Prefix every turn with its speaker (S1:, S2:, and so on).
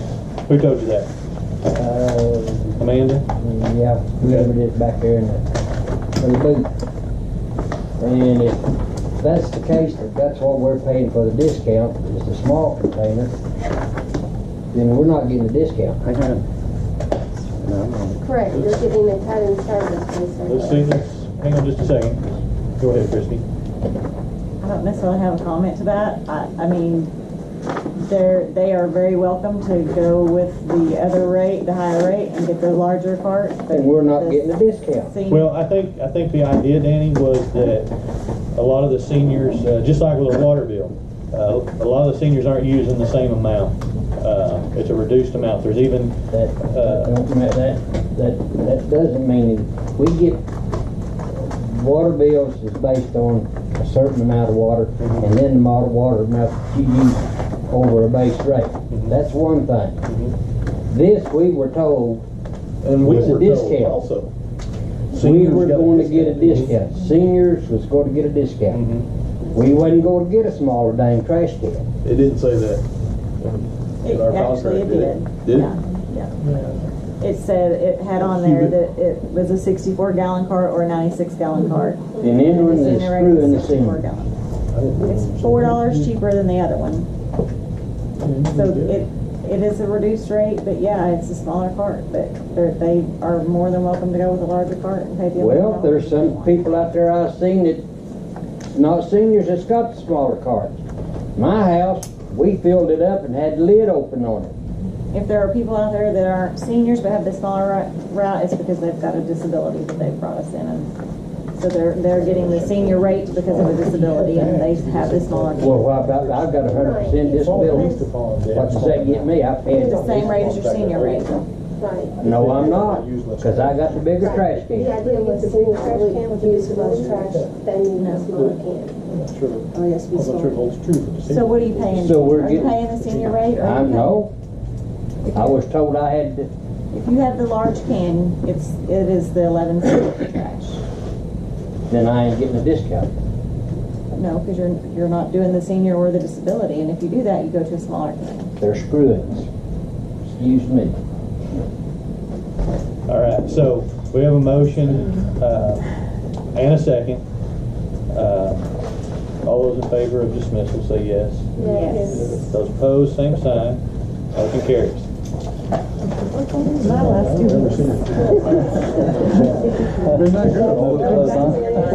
S1: Who told you that?
S2: Uh,
S1: Amanda?
S2: yeah, whoever it is back there in the, in the booth. And if that's the case, if that's what we're paying for the discount, is the small container, then we're not getting a discount.
S3: I got it. No,
S4: Correct, you're getting a cut in service, Ms.
S1: Let's see this. Hang on just a second. Go ahead, Christie.
S5: I don't necessarily have a comment to that. I, I mean, they're, they are very welcome to go with the other rate, the higher rate, and get the larger part. but
S2: And we're not
S5: the
S2: getting a discount.
S5: senior-
S1: Well, I think, I think the idea, Danny, was that a lot of the seniors, uh, just like with a water bill, uh, a lot of the seniors aren't using the same amount. Uh, It's a reduced amount. There's even,
S2: That,
S1: Uh,
S2: that don't ma- that, that, that doesn't mean that we get, water bills is based on a certain amount of water, and then the amount of water amount that you use over a base rate. That's one
S1: Mhm.
S2: thing. This, we were told,
S6: And we
S2: With a
S6: were told
S2: discount.
S6: also.
S2: we
S6: seniors
S2: were
S6: got
S2: going to get a discount. Seniors was going to get a discount.
S1: Mm-hmm.
S2: We wasn't going to get a smaller dang trash can.
S6: It didn't say that.
S5: It-
S6: in our
S5: Actually,
S6: contract, did
S5: it did.
S6: it? Did it?
S5: Yeah, yeah. It said, it had on there that it was a sixty-four gallon cart or a ninety-six gallon cart.
S2: And then when they
S5: The senior rate
S2: screw in the
S5: is 64
S2: senior.
S5: gallon. It's four dollars cheaper than the other one. So it, it is a reduced rate, but yeah, it's a smaller cart, but they're, they are more than welcome to go with a larger cart and pay the.
S2: Well,
S5: $11.
S2: there's some people out there I've seen that, not seniors, that's got the smaller carts. My house, we filled it up and had the lid open on it.
S5: If there are people out there that aren't seniors but have the smaller ri- route, it's because they've got a disability that they've brought us in and so they're, they're getting the senior rate because of a disability and they have the smaller.
S2: Well, why about, I've got a hundred percent disability. What does that get me? I paid.
S5: The same rate as your senior rate.
S4: Right.
S2: No, I'm not, cause I got the bigger trash
S4: The
S2: can.
S4: idea was that we would use less trash than the smaller can.
S5: Oh,
S1: I'm not sure it holds true for the
S5: So what are you paying?
S2: So we're
S5: Are you
S2: getting-
S5: paying the senior rate or?
S2: I
S5: are you
S2: know. I was told I had to
S5: paying- If you have the large can, it's, it is the eleven cent for trash.
S2: then I ain't getting a discount.
S5: No, because you're, you're not doing the senior or the disability, and if you do that, you go to a smaller can.
S2: They're screwing us. Excuse me.
S1: All right, so we have a motion uh, and a second. Uh, All those in favor of dismissal, say yes.
S5: Yes.
S1: Those opposed, same sign. Motion carries.
S6: Been that good all the time.